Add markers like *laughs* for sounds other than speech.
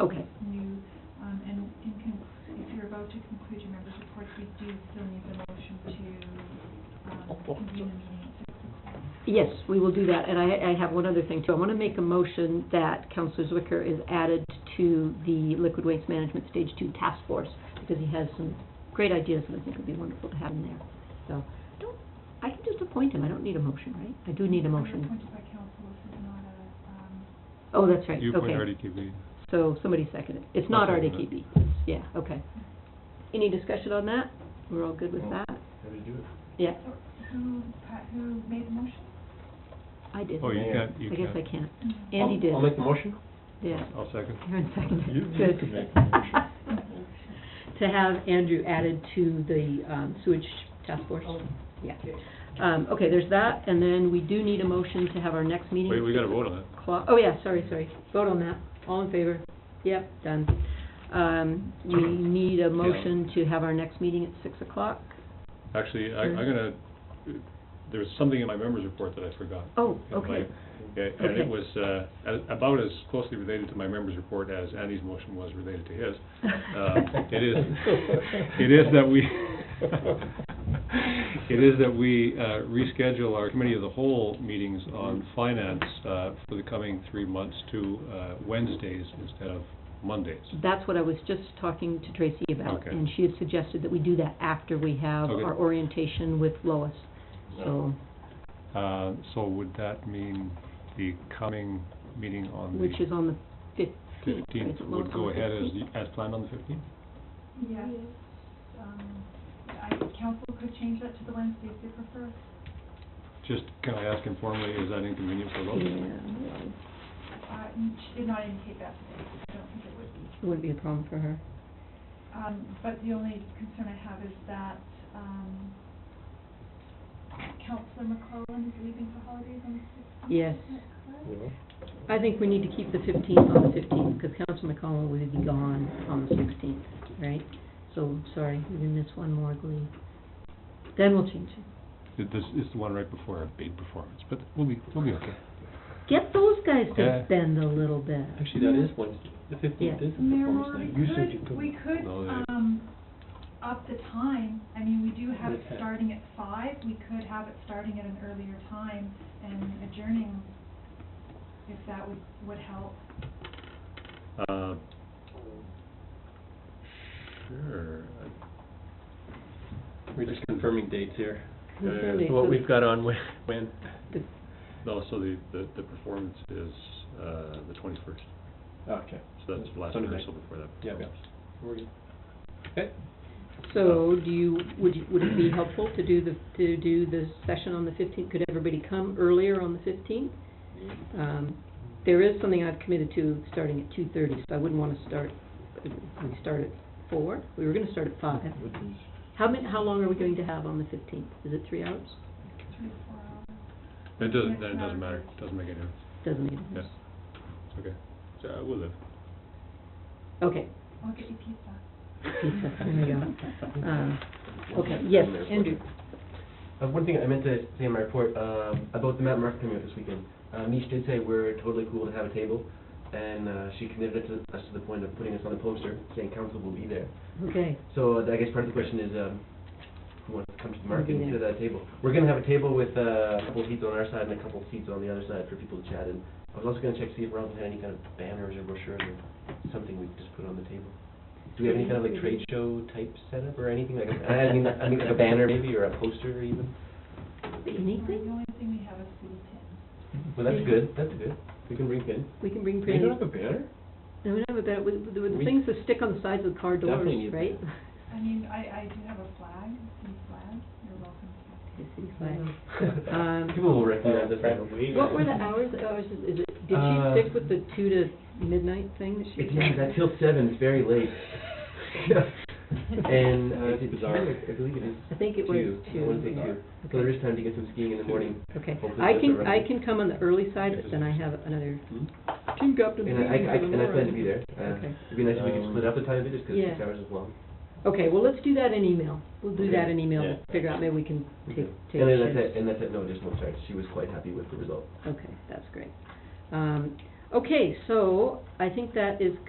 Okay. new, um, and in con- if you're about to conclude your members' reports, we do still need the motion to, um, convene the meeting at six o'clock. Yes, we will do that, and I, I have one other thing too. I want to make a motion that Counselor Zwicker is added to the Liquid Waste Management Stage Two Task Force, because he has some great ideas that I think would be wonderful to have in there. So, don't, I can just appoint him, I don't need a motion, right? I do need a We're motion. appointed by council, this is not a, um, Oh, that's right, You appoint okay. RDKB. So, somebody second it. It's not I'll second it. RDKB, it's, yeah, okay. Any discussion on that? We're all good with Well- that? How do you do it? Yeah, so who, pa- who made the motion? I did. Oh, you I Yeah. can't, you guess can't. I can't. Mm. Andy I'll- did. I'll make the motion. Yeah. I'll second. Karen seconded. You- you Good. can make *laughs* To have Andrew added to the um, sewage task force? Yeah. Um, Okay, there's that, and then we do need a motion to have our next meeting. Wait, we gotta vote on it. Cla- Oh, yeah, sorry, sorry. Vote on that. All in favor? Yep, done. Um, We need a motion to have our next meeting at six o'clock. Actually, I, I'm gonna, there was something in my members report that I forgot. Oh, And my- okay. yeah, And Okay. it was, uh, a- about as closely related to my members report as Andy's motion was related to his. *laughs* Um, *laughs* It *laughs* is, it is that we, *laughs* it is that we uh, reschedule our committee of the whole meetings on finance uh, for the coming three months to uh, Wednesdays instead of Mondays. That's what I was just talking to Tracy about, Okay. and she had suggested that we do that after we have Okay. our orientation with Lois. So Uh, So would that mean the coming meeting on Which the is on the fifteenth. fifteenth would go ahead as, as planned on the fifteenth? Yes, um, I, council could change that to the Wednesday if they prefer. Just, can I ask informally, is that inconvenient for those? Yeah, Uh, and she did not indicate that today, I don't think it would be. it wouldn't be a problem for her. Um, but the only concern I have is that, um, Councillor McClellan is leaving for holidays on the sixteenth. Yes. Yeah. I think we need to keep the fifteenth on the fifteenth, because Council McCollum will be gone on the sixteenth, right? So, sorry, we didn't miss one more glee. Then we'll change it. It- This is the one right before our big performance, but we'll be, we'll be okay. Get those guys to Yeah. bend a little bit. Actually, that is Wednesday, the fifteenth Yeah. is the Mayor performance Moore, night. we You said you could, couldn't. we could, No, they- um, up the time, I mean, we do have it Okay. starting at five, we could have it starting at an earlier time and adjourning, if that would, would help. Uh, Sure. I- We're just confirming dates here. Uh, Confirm dates. What we've got on when, when, No, so the, the, the performance is, uh, the twenty-first, okay, so that's the last Sunday night. rehearsal before that. Yeah. performance. we're good. Okay, So, do you, would, you- would it be helpful to do the, to do the session on the fifteenth? Could everybody come earlier on the fifteenth? Um, there is something I've committed to starting at two thirty, so I wouldn't wanna start, we start at four, we were gonna start at five. With these- How many, how long are we going to have on the fifteenth? Is it three hours? three or four hours. It doesn't, Yes, then it doesn't matter, Saturday. doesn't make any difference, Doesn't make a difference. It's okay. So, uh, we'll live. Okay, I'll get you pizza. pizza, *laughs* *laughs* there you go. Um, okay, yes, Andrew. Uh, one thing I meant to say in my report, um, about the Matt Market coming out this weekend, uh, Mish did say we're totally cool to have a table, and, uh, she committed it to us to the point of putting us on the poster, saying council will be there. Okay, So uh, I guess part of the question is, um, who wants to come to the Who'll be market and sit there? at that table? We're gonna have a table with, uh, a couple of seats on our side and a couple of seats on the other side for people to chat, and I was also gonna check, to see if Robin had any kind of banners or brochures or something we could just put on the table. Do we have any kind of like trade show type setup or anything, like, a- I mean, I mean, like a banner maybe, or a poster even? The anything? only thing we have is food tin. Well, that's good, that's good. We can bring in. We can bring We printed. don't have a banner? No, we don't have a bed, with, with the We- things that stick on the sides of car doors, Definitely need right? *laughs* I mean, I, I do have a flag, a city flag, you're welcome to that. The city flag. Um, People will recognize us. What were the hours, hours, is is it, did Uh, she stick with the two to midnight thing that she? It's, yeah, that's till seven, it's very late. *laughs* And, uh, it's bizarre, I believe it is. I think it was two. I wanna say two, yeah. two. So there is time to get some skiing in the morning. Okay, Hopefully I that's can, around. I can come on the early side, but then I have another Hmm? team captain And meeting I, I, I- in the and I plan to morning. be there. Uh, Okay. It'd be nice if we could split up the time a bit, just 'cause Yeah. six hours is long. Okay, well, let's do that in email. We'll do that in email, Yeah. figure out, maybe we can take, take. And then that's shifts. it, and that's it, no additional charge. She was quite happy with the result. Okay, that's great. Um, okay, so I think that is